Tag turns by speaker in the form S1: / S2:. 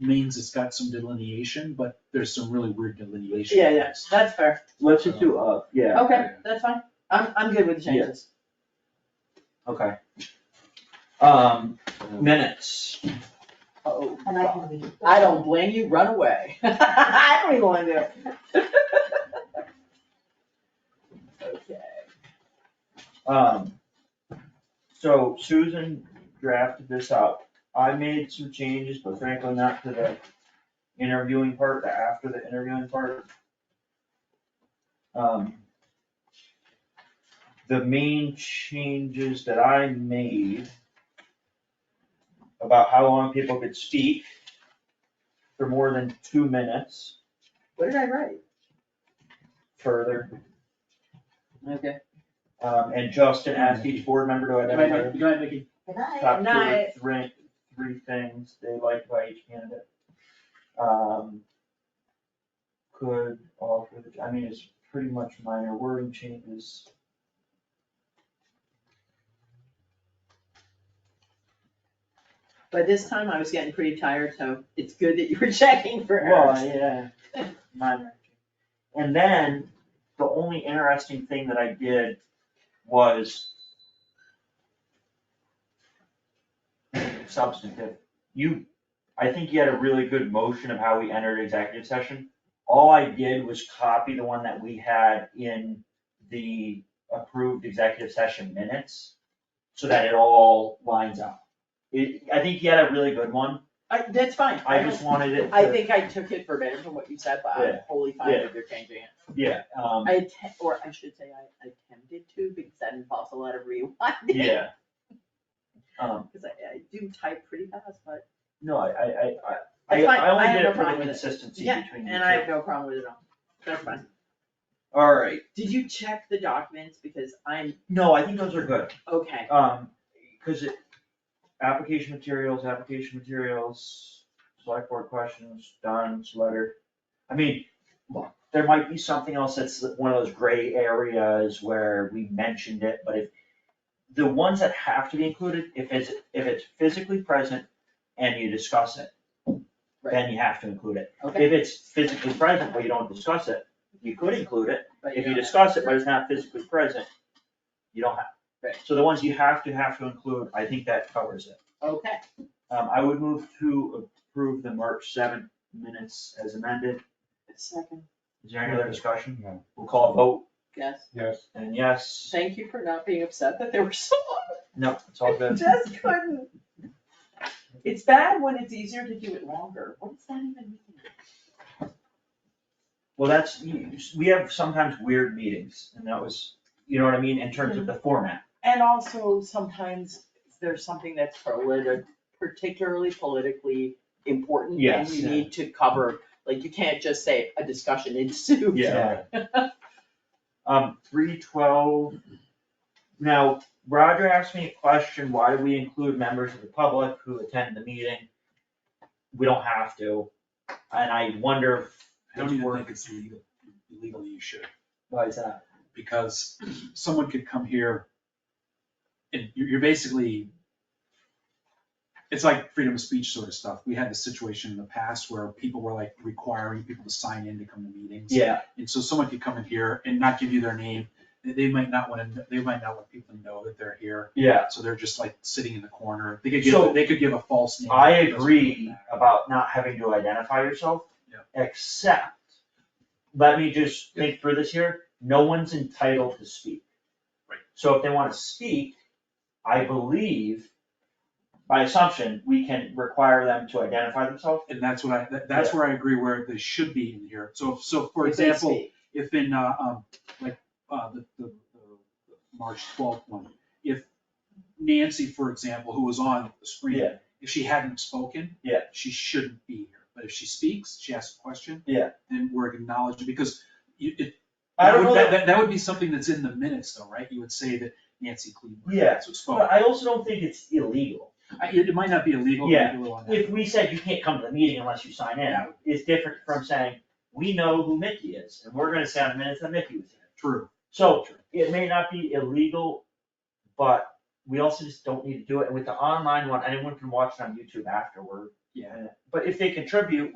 S1: means it's got some delineation, but there's some really weird delineation.
S2: Yeah, yeah, that's fair,
S3: Let's just do up, yeah,
S2: okay, that's fine, I'm, I'm good with the changes.
S3: okay. Um, minutes,
S2: Oh,
S4: And I can read.
S2: I don't blame you, run away, I don't even wanna do it. Okay,
S3: um, so Susan drafted this up. I made some changes, but frankly not to the interviewing part, the after the interviewing part. Um, the main changes that I made about how long people could speak for more than two minutes.
S2: what did I write?
S3: further,
S2: Okay.
S3: um, and Justin asked each board member to
S1: Go ahead,
S3: identify
S1: Mike. Go ahead, Vicky.
S4: Good night.
S3: top two or
S2: Nice.
S3: three, three things they liked by each candidate. Um, could offer, the- I mean, it's pretty much minor wording changes.
S2: By this time, I was getting pretty tired, so it's good that you were checking for errors.
S3: Well, yeah, minor. And then, the only interesting thing that I did was substantive. You, I think you had a really good motion of how we entered executive session. All I did was copy the one that we had in the approved executive session minutes, so that it all lines up. It, I think you had a really good one,
S2: I, that's fine.
S3: I just wanted it to.
S2: I think I took it verbatim from what you said, but I'm
S3: Yeah.
S2: wholly fine
S3: Yeah.
S2: if you're changing it.
S3: Yeah, um,
S2: I atte- or I should say I attempted to, because that involves a lot of rewinding.
S3: yeah. Um,
S2: Cause I, I do type pretty fast, but,
S3: no, I, I, I- I,
S2: That's fine.
S3: I only
S2: I have
S3: did
S2: no
S3: it for the
S2: problem with it.
S3: consistency
S2: Yeah,
S3: between you
S2: and I have
S3: two.
S2: no problem with it at all, that's fine.
S3: Alright,
S2: Did you check the documents, because I'm,
S3: no, I think those are good,
S2: okay,
S3: um, cause it, application materials, application materials, select board questions, Don's letter. I mean, look, there might be something else that's one of those gray areas where we mentioned it, but if the ones that have to be included, if it's, if it's physically present and you discuss it,
S2: right,
S3: then you have to include it.
S2: okay.
S3: If it's physically present, but you don't discuss it, you could include it.
S2: But
S3: If you
S2: don't-
S3: discuss it, but it's not physically present, you don't have.
S2: Right.
S3: So the ones you have to, have to include, I think that covers it.
S2: Okay,
S3: Um, I would move to approve the March seventh minutes as amended.
S2: second,
S3: Is there any other discussion?
S1: No.
S3: We'll call a vote,
S2: yes,
S1: Yes.
S3: and yes,
S2: thank you for not being upset that there were so long.
S3: no, it's all
S2: I
S3: good.
S2: Just couldn't. It's bad when it's easier to do it longer. What does that even mean?
S3: Well, that's, you- you- we have sometimes weird meetings, and that was, you know what I mean, in terms of the format.
S2: And also sometimes there's something that's politic, particularly politically important and
S3: Yes,
S2: you
S3: yeah.
S2: need to cover, like you can't just say a discussion ensued.
S3: Um, three twelve. Now, Roger asked me a question, why do we include members of the public who attend the meeting? We don't have to, and I wonder
S1: I don't even think it's legal, legally you should,
S3: why is that?
S1: because someone could come here and you're, you're basically, it's like freedom of speech sort of stuff. We had the situation in the past where people were like requiring people to sign in to come to meetings.
S3: Yeah,
S1: And so someone could come in here and not give you their name, they, they might not wanna, they might not want people to know that they're here.
S3: yeah,
S1: So they're just like sitting in the corner, they could give,
S3: So-
S1: they could give a false name.
S3: I
S1: It doesn't really
S3: agree
S1: matter.
S3: about not having to identify yourself.
S1: Yeah.
S3: Except, let me just think through this here, no one's entitled to speak.
S1: Right.
S3: So if they wanna speak, I believe, by assumption, we can require them to identify themselves.
S1: And that's what I, that, that's
S3: Yeah.
S1: where I agree where they should be in here. So, so for
S2: If they
S1: example,
S2: speak.
S1: if in, uh, um, like, uh, the, the, the March twelfth one, if Nancy, for example, who was on the screen,
S3: Yeah.
S1: if she hadn't spoken.
S3: Yeah.
S1: She shouldn't be here. But if she speaks, she asks a question.
S3: Yeah.
S1: Then we're acknowledging, because you, it,
S3: I don't
S1: that
S3: know
S1: would-
S3: that,
S1: That, that would be something that's in the minutes though, right? You would say that Nancy Cleveland.
S3: Yeah.
S1: So
S3: but I also don't think it's illegal.
S1: It, it might not be illegal. it might
S3: Yeah.
S1: be a little unethical.
S3: If we said you can't come to the meeting unless you sign in,
S1: Yeah.
S3: it's different from saying, we know who Mickey is, and we're gonna say on the minutes that Mickey was here.
S1: True.
S3: So, it may not be illegal, but we also just don't need to do it, and with the online one, anyone can watch it on YouTube afterward,
S1: Yeah.
S3: But if they contribute,